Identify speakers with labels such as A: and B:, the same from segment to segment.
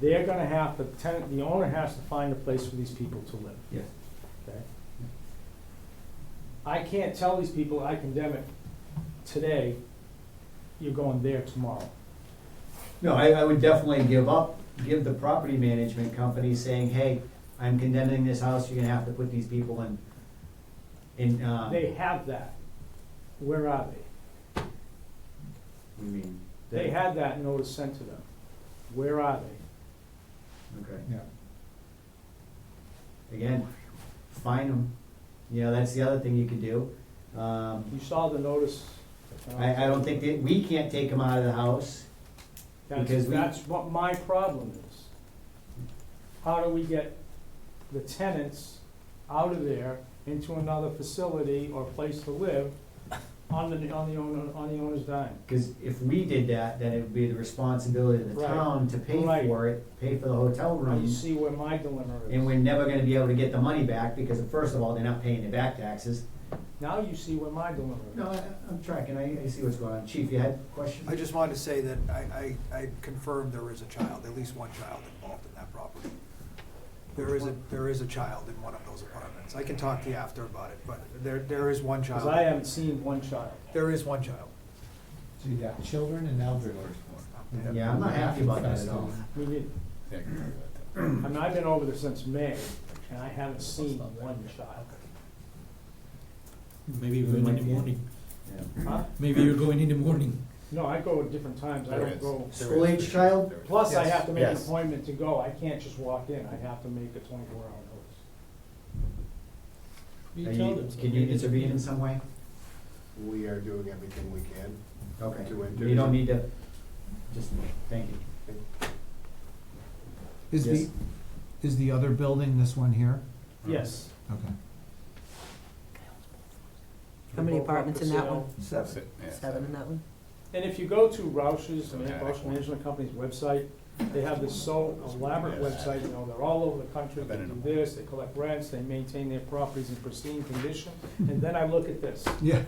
A: they're gonna have, the tenant, the owner has to find a place for these people to live.
B: Yes.
A: Okay? I can't tell these people, I condemn it today, you're going there tomorrow.
B: No, I, I would definitely give up, give the property management company saying, hey, I'm condemning this house, you're gonna have to put these people in, in, uh, what
A: They have that. Where are they?
B: do you mean?
A: They had that notice sent to them. Where are they?
B: Okay,
C: Yeah.
B: again, fine them. You know, that's the other thing you could do. Um,
A: You saw the notice. uh,
B: I, I don't think that, we can't take them out of the house.
A: That's,
B: because we-
A: that's what my problem is. How do we get the tenants out of there into another facility or place to live on the, on the owner, on the owner's dime?
B: Because if we did that, then it would be the responsibility of the
A: Right.
B: town to pay
A: Right.
B: for it, pay for the hotel
A: Now You
B: rooms.
A: see where my dilemma
B: And
A: is.
B: we're never gonna be able to get the money back because first of all, they're not paying the back taxes.
A: Now you see where my dilemma is.
B: No, I, I'm tracking, I, I see what's going on. Chief, you had a question?
D: I just wanted to say that I, I, I confirm there is a child, at least one child involved in that property. There is a, there is a child in one of those apartments. I can talk to you after about it, but there, there is one
A: Cause I
D: child.
A: haven't seen one child.
D: There is one child.
C: So you got children and elderly.
B: Yeah, I'm not happy about that at all.
A: We did, I mean, I've been over there since May and I haven't seen one child.
E: Maybe you go in in the morning.
A: Huh?
E: Maybe you're going in the morning.
A: No, I go at different times. I
F: There
A: don't
F: is.
A: go.
B: School age child?
A: Plus, I
D: Yes.
A: have to make an
F: Yes.
A: appointment to go, I can't just walk in, I have to make a twenty-four hour notice.
B: Are
E: You tell
B: you,
E: them. so
B: can you
E: maybe-
B: intervene in some way?
F: We are doing everything we can.
B: Okay,
F: Do it, do
B: you don't
F: it.
B: need to, just, thank you.
C: Is the,
B: Yes.
C: is the other building this one here?
F: Hmm.
A: Yes.
C: Okay.
G: How many
A: Both up
G: apartments
A: for
G: in that
A: sale.
G: one?
F: Sit- yeah,
G: Seven in that one?
A: And if you go to Roush's,
F: So
A: Man-
F: yeah,
A: Roush
F: that one.
A: Management Company's website, they have this so elaborate
F: Yes.
A: website, you know, they're all over the country, they
F: Been in
A: do
F: them.
A: this, they collect rents, they maintain their properties in pristine condition, and then I look at this.
C: Yeah.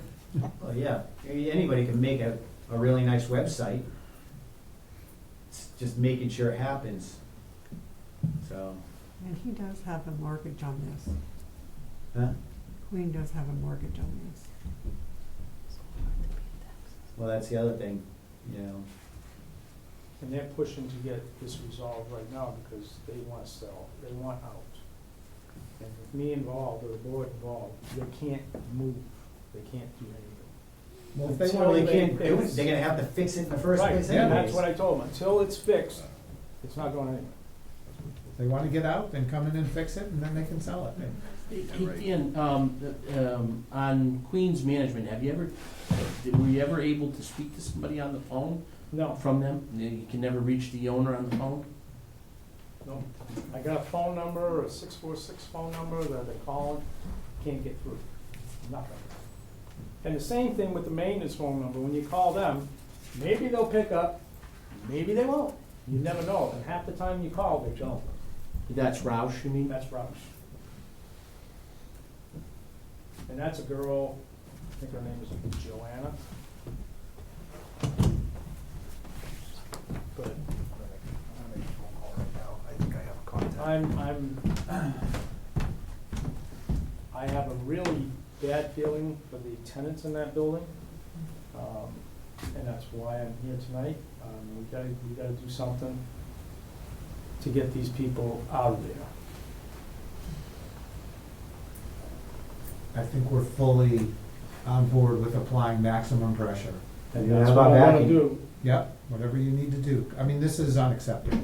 B: Well, yeah, anybody can make a, a really nice website. It's just making sure it happens. So,
G: And he does have a mortgage on this.
B: huh?
G: Queen does have a mortgage on this.
B: Well, that's the other thing, you know.
A: And they're pushing to get this resolved right now because they want to sell, they want out. And with me involved, or the board involved, they can't move, they can't do anything.
B: Well,
A: if
B: if
A: they
B: they
A: Until wanna-
B: can't
A: they
B: do it,
A: fix-
B: they're gonna have to fix it in the first
A: Right,
B: place
A: and that's
B: anyways.
A: what I told them, until it's fixed, it's not going anywhere.
C: If they wanna get out, then come in and fix it, and then they can sell it.
H: Hey, Dan, um, the- um, on Queens Management, have you ever, were you ever able to speak to somebody on the phone
A: No,
H: from them? You can never reach the owner on the phone?
A: no, I got a phone number, a six four six phone number that they're calling, can't get through, nothing. And the same thing with the maintenance phone number, when you call them, maybe they'll pick up, maybe they won't, you never know, and half the time you call, they don't.
H: That's Roush, you mean?
A: That's Roush. And that's a girl, I think her name is Joanna. But
D: I'm gonna make a phone call right now. I think I have a contact.
A: I'm, I'm, I have a really bad feeling for the tenants in that building. Um, And that's why I'm here tonight. Um, we gotta, we gotta do something to get these people out of there.
C: I think we're fully on board with applying maximum pressure.
A: And
B: Yeah,
A: that's
B: how
A: what
B: about
A: I wanna
B: backing?
A: do.
C: Yep, whatever you need to do. I mean, this is unacceptable.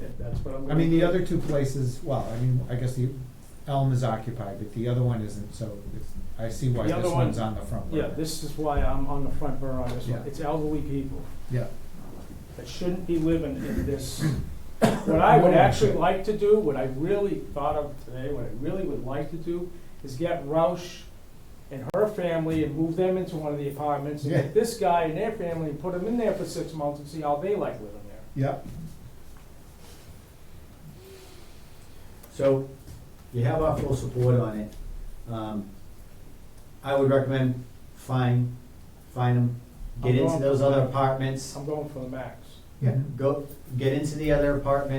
A: Yeah, That's what I'm.
C: I
A: gonna
C: mean, the
A: do.
C: other two places, well, I mean, I guess the Elm is occupied, but the other one isn't, so it's, I see why
A: The other
C: this
A: one-
C: one's on the front
A: Yeah,
C: burner.
A: this is why I'm on the front burner on this one.
C: Yeah.
A: It's elderly people
C: Yeah.
A: that shouldn't be living in this. What I would
C: No one
A: actually
C: should.
A: like to do, what I really thought of today, what I really would like to do is get Roush and her family and move them into one of the apartments and
C: Yeah.
A: get this guy and their family and put them in there for six months and see how they like living there.
C: Yeah,
B: So, you have our full support on it. Um, I would recommend find, find them, get
A: I'm
B: into
A: going-
B: those other apartments,
A: I'm going for the max.
C: yeah.
B: go, get into the other apartment,